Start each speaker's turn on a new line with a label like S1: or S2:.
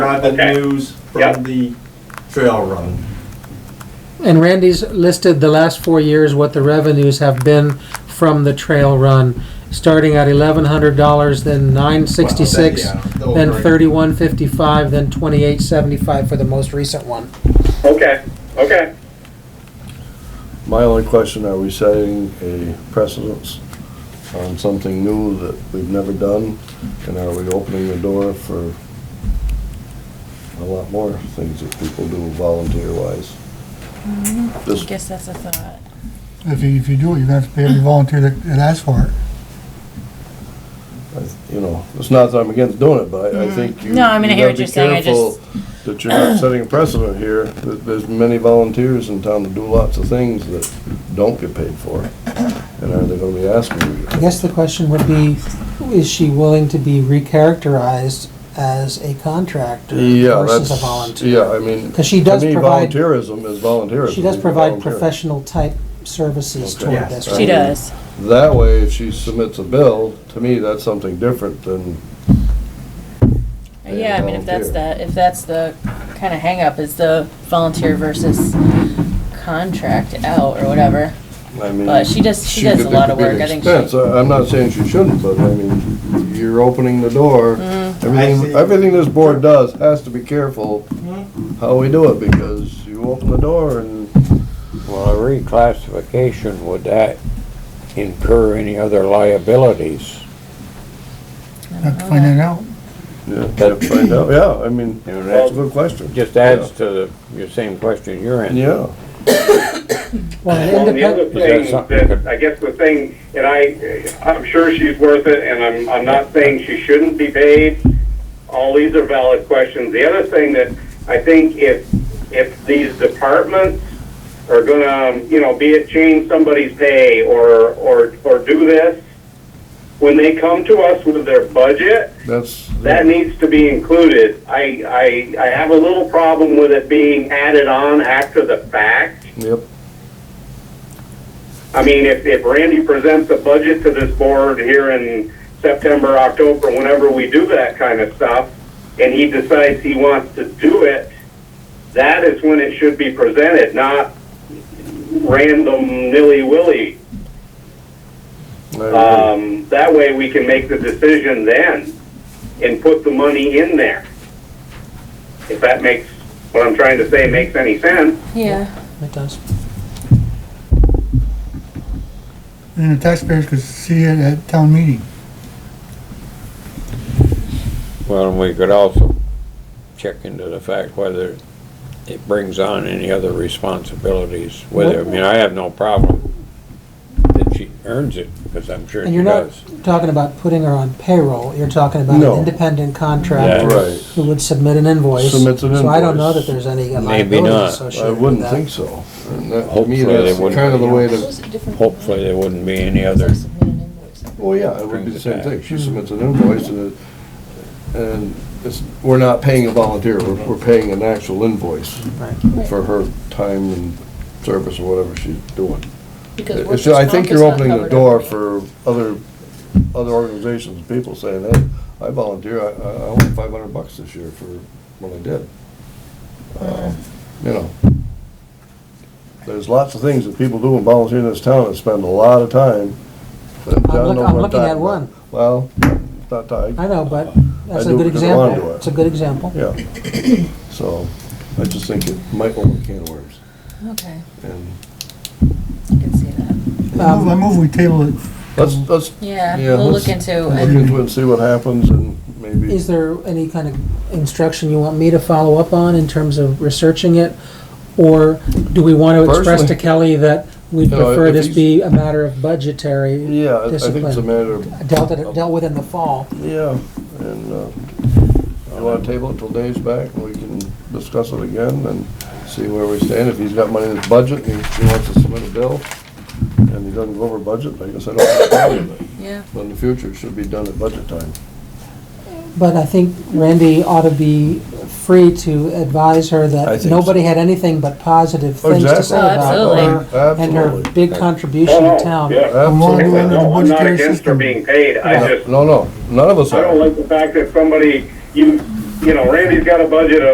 S1: describe the
S2: Okay.
S1: news
S2: Yep.
S1: from the trail run.
S3: And Randy's listed the last four years what the revenues have been from the trail run, starting at eleven hundred dollars, then nine sixty-six,
S1: Well, then, yeah, they'll
S3: then
S1: agree.
S3: thirty-one fifty-five, then twenty-eight seventy-five for the most recent one.
S2: Okay, okay.
S4: My only question, are we setting a precedence on something new that we've never done? And are we opening the door for a lot more things that people do volunteer-wise?
S5: I
S4: This,
S5: guess that's a thought.
S6: If you, if you do it, you're gonna have to pay every volunteer that, that asks for it.
S4: you know, it's not that I'm against doing it, but I I think you.
S5: Mm-hmm. No, I mean, I
S4: you
S5: hear
S4: gotta
S5: what you're
S4: be
S5: saying, I just-
S4: careful That you're not setting a precedent here, that there's many volunteers in town that do lots of things that don't get paid for. And are they gonna be asking you? to get
S3: I
S4: paid?
S3: guess the question would be, is she willing to be recharacterized as a contractor
S4: Yeah,
S3: versus a
S4: that's,
S3: volunteer?
S4: yeah, I mean,
S3: 'Cause she
S4: to
S3: does
S4: me,
S3: provide-
S4: volunteerism is volunteerism.
S3: She does
S4: You
S3: provide
S4: volunteer.
S3: professional-type services
S4: Okay.
S3: toward
S1: Yes.
S3: this.
S5: She does.
S4: That way, if she submits a bill, to me, that's something different than,
S5: Yeah, I mean, if that's
S4: Volunteer.
S5: the, if that's the kind of hangup is the volunteer versus contract out or whatever.
S4: I mean.
S5: But she does- she does
S4: could-
S5: a
S4: there
S5: lot
S4: could
S5: of
S4: be an
S5: work. I think
S4: expense.
S5: she-
S4: I- I'm not saying she shouldn't, but I mean, you're opening the door.
S5: Mm-hmm.
S1: I see.
S4: Everything, everything this board does has to be careful how we do it, because you open the door and
S7: Well, a reclassification, would that incur any other liabilities?
S6: Have to find that out.
S4: you can't find out, yeah, I mean, that's a good question.
S7: Just adds to the, your same question you're in.
S4: Yeah.
S3: Well, an
S2: Well, the
S3: independent-
S2: other
S7: Is that
S2: thing
S7: something-
S2: that, I guess the thing, and I, I'm sure she's worth it, and I'm, I'm not saying she shouldn't be paid. All these are valid questions. The other thing that I think if, if these departments are gonna, um, you know, be it change somebody's pay or, or, or do this, when they come to us with their budget,
S4: That's.
S2: that needs to be included. I, I, I have a little problem with it being added on after the fact.
S4: Yep.
S2: I mean, if, if Randy presents a budget to this board here in September, October, whenever we do that kind of stuff, and he decides he wants to do it, that is when it should be presented, not random nilly-willy.
S4: I agree.
S2: Um, that way we can make the decision then and put the money in there. If that makes, what I'm trying to say makes any sense.
S5: Yeah.
S3: It does.
S6: And the taxpayers could see it at town meeting.
S7: Well, and we could also check into the fact whether it brings on any other responsibilities, whether, I mean, I have no problem that she earns it, because I'm sure
S3: And
S7: she
S3: you're not
S7: does.
S3: talking about putting her on payroll, you're talking about an
S4: No.
S3: independent
S7: Yeah.
S3: contractor
S4: Right.
S3: who would submit an invoice.
S4: Submits an
S3: So I don't know that
S4: invoice.
S3: there's any
S7: Maybe
S3: liability
S7: not.
S4: I
S3: associated with
S4: wouldn't think
S3: that.
S4: so. And that, to me,
S7: Hopefully they
S4: that's
S7: wouldn't.
S4: kind of the way to,
S7: Hopefully, there wouldn't be any other,
S4: well, yeah, it would be the
S7: Brings it
S4: same
S7: back.
S4: thing. She submits an invoice and it, and it's, we're not paying a volunteer, we're, we're paying an actual invoice
S3: Right.
S4: for her time and service or whatever she's doing.
S5: Because
S4: It's, I think you're opening the door for other, other organizations, people saying, hey, I volunteer, I, I I won five hundred bucks this year for what I did. Uh, You know, there's lots of things that people do and volunteer in this town and spend a lot of time. that John
S3: look-
S4: knows
S3: I'm
S4: what
S3: looking
S4: talking
S3: at
S4: about.
S3: one.
S4: Well, it's not tied,
S3: I know, but that's
S4: I
S3: a
S4: do
S3: good
S4: because I wanna
S3: example.
S4: do it.
S3: It's a good example.
S4: yeah. So, I just think it might open a can of worms,
S5: Okay,
S4: and
S5: I can see that.
S6: I move- I
S3: Um,
S6: move we table it.
S4: let's, let's
S5: Yeah,
S4: Yeah,
S5: we'll
S4: let's-
S5: look into
S4: look
S5: it.
S4: into it and see what happens and maybe.
S3: Is there any kind of instruction you want me to follow up on in terms of researching it? Or do we want to express to
S4: Personally-
S3: Kelly that we'd
S4: No,
S3: prefer
S4: if
S3: this
S4: he's-
S3: be a matter of budgetary
S4: Yeah, I I think it's a
S3: discipline?
S4: matter of,
S3: Dealt, it- dealt with in the fall.
S4: yeah, and, uh, you wanna table it till Dave's back, and we can discuss it again and see where we stand, if he's got money in his budget, and he wants to submit a bill, and he doesn't go over budget, I guess I don't have a problem with it,
S5: Yeah.
S4: but in the future, it should be done at budget time.
S3: But I think Randy ought to be free to advise her
S4: I
S3: that
S4: think
S3: nobody had anything but positive things to
S4: Exactly.
S3: say
S5: Oh,
S3: about her and her
S4: Absolutely,
S3: big contribution to town.
S4: absolutely.
S6: Well, no,
S2: No, I'm not
S6: budgetary
S2: against her
S6: system.
S2: being paid, I just,
S4: No, no, none of us
S2: I
S4: are.
S2: don't like the fact that somebody, you, you know, Randy's got a budget of